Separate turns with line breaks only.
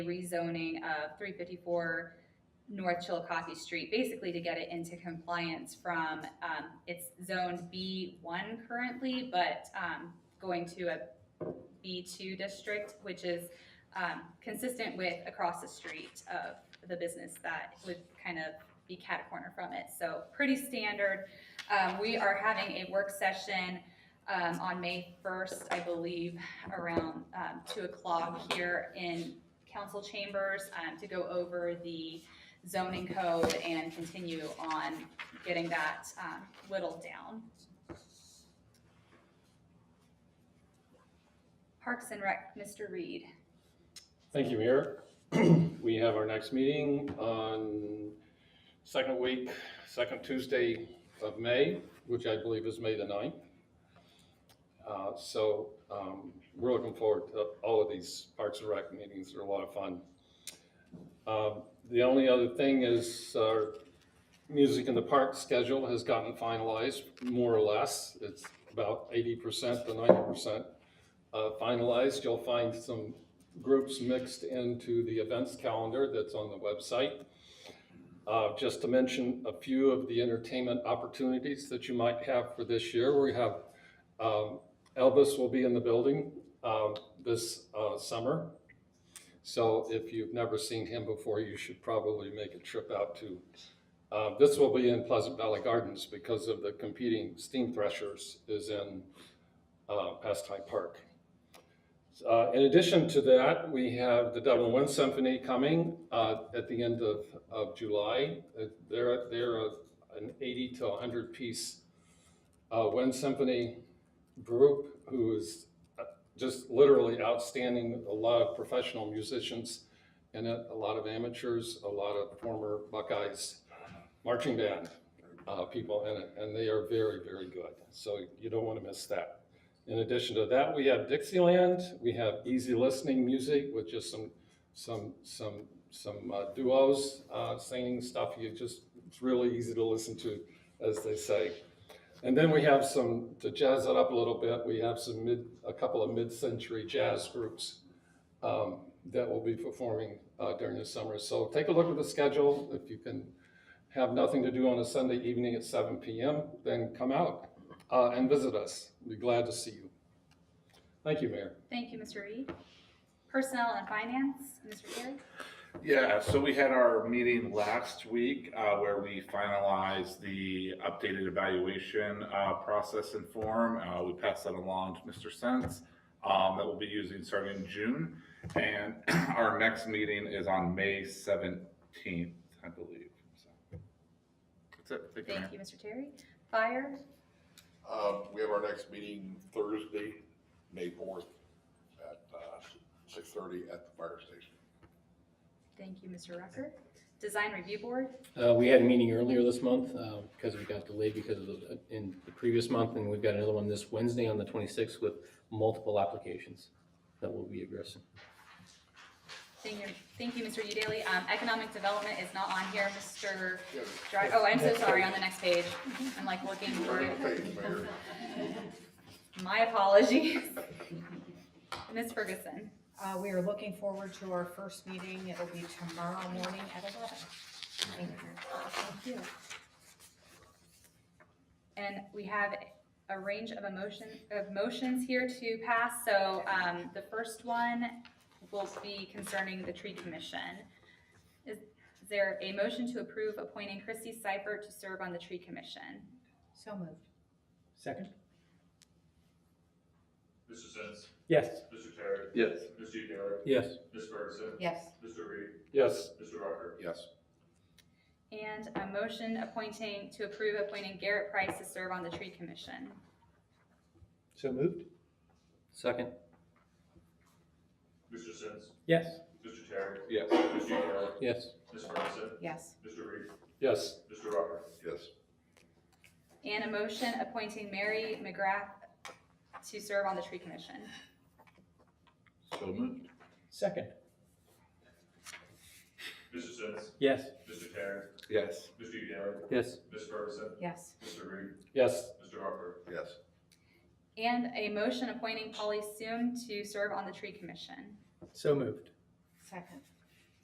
rezoning of three fifty-four North Chillicothe Street, basically to get it into compliance from, um, it's zone B one currently, but, um, going to a B two district, which is, um, consistent with across the street of the business that would kind of be cat corner from it. So pretty standard. Um, we are having a work session, um, on May first, I believe, around, um, two o'clock here in council chambers um, to go over the zoning code and continue on getting that um, whittled down. Parks and Rec, Mr. Reed.
Thank you, Mayor. We have our next meeting on second week, second Tuesday of May, which I believe is May the 9th. Uh, So um, we're looking forward to all of these Parks and Rec meetings. They're a lot of fun. Um, The only other thing is our Music in the Park schedule has gotten finalized, more or less. It's about 80% to 90% uh, finalized. You'll find some groups mixed into the events calendar that's on the website. Uh, Just to mention a few of the entertainment opportunities that you might have for this year, we have um, Elvis will be in the building um, this uh, summer. So if you've never seen him before, you should probably make a trip out to. uh, This will be in Pleasant Valley Gardens because of the competing steam threshers is in uh, Pastime Park. Uh, In addition to that, we have the Dublin Wind Symphony coming uh, at the end of, of July. Uh, They're, they're a- an 80 to 100 piece uh, wind symphony group who is uh, just literally outstanding, a lot of professional musicians in it, a lot of amateurs, a lot of former Buckeyes marching band uh, people in it, and they are very, very good. So you don't want to miss that. In addition to that, we have Dixieland, we have easy listening music with just some, some, some, some uh, duos uh, singing stuff. You just, it's really easy to listen to, as they say. And then we have some, to jazz it up a little bit, we have some mid, a couple of mid-century jazz groups um, that will be performing uh, during the summer. So take a look at the schedule. If you can have nothing to do on a Sunday evening at seven PM, then come out uh, and visit us. Be glad to see you. Thank you, Mayor.
Thank you, Mr. Reed. Personnel and Finance, Mr. Terry.
Yeah, so we had our meeting last week uh, where we finalized the updated evaluation uh, process and form. Uh, We passed that along to Mr. Sense um, that we'll be using starting in June. And our next meeting is on May 17th, I believe. So That's it. Thank you, Mayor.
Thank you, Mr. Terry. Fire,
Um, we have our next meeting Thursday, May fourth, at, uh, six thirty at the fire station.
thank you, Mr. Rucker. Design Review Board,
Uh, we had a meeting earlier this month, uh, because we got delayed because of the, in the previous month, and we've got another one this Wednesday on the twenty-sixth with multiple applications that will be addressing.
thank you, thank you, Mr. Udaly. Um, Economic Development is not on here, Mr.
Yeah,
Dri- oh, I'm so sorry, on the next page. I'm like looking
we're
for
in
it.
the phase, Mayor.
My apologies. Ms. Ferguson,
Uh, we are looking forward to our first meeting. It'll be tomorrow morning at eleven. Thank you.
and we have a range of emotion, of motions here to pass, so, um, the first one will be concerning the tree commission. Is is there a motion to approve appointing Christy Seifert to serve on the tree commission?
So moved.
Second?
Mr. Sins,
Yes.
Mr. Terry,
Yes.
Mr. Taylor,
Yes.
Ms. Ferguson,
Yes,
Mr. Reed,
Yes,
Mr. Rucker.
Yes,
And a motion appointing, to approve appointing Garrett Price to serve on the tree commission.
So moved? Second?
Mr. Sins,
Yes.
Mr. Terry,
Yes.
Mr. Taylor,
Yes.
Ms. Ferguson,
yes,
Mr. Reed,
yes,
Mr. Rucker.
yes,
And a motion appointing Mary McGrath to serve on the tree commission.
So moved.
Second?
Mr. Sins,
Yes.
Mr. Terry,
Yes.
Mr. Taylor,
Yes.
Ms. Ferguson,
yes,
Mr. Reed,
yes,
Mr. Rucker.
yes,
And a motion appointing Polly Soon to serve on the tree commission.
So moved?
second,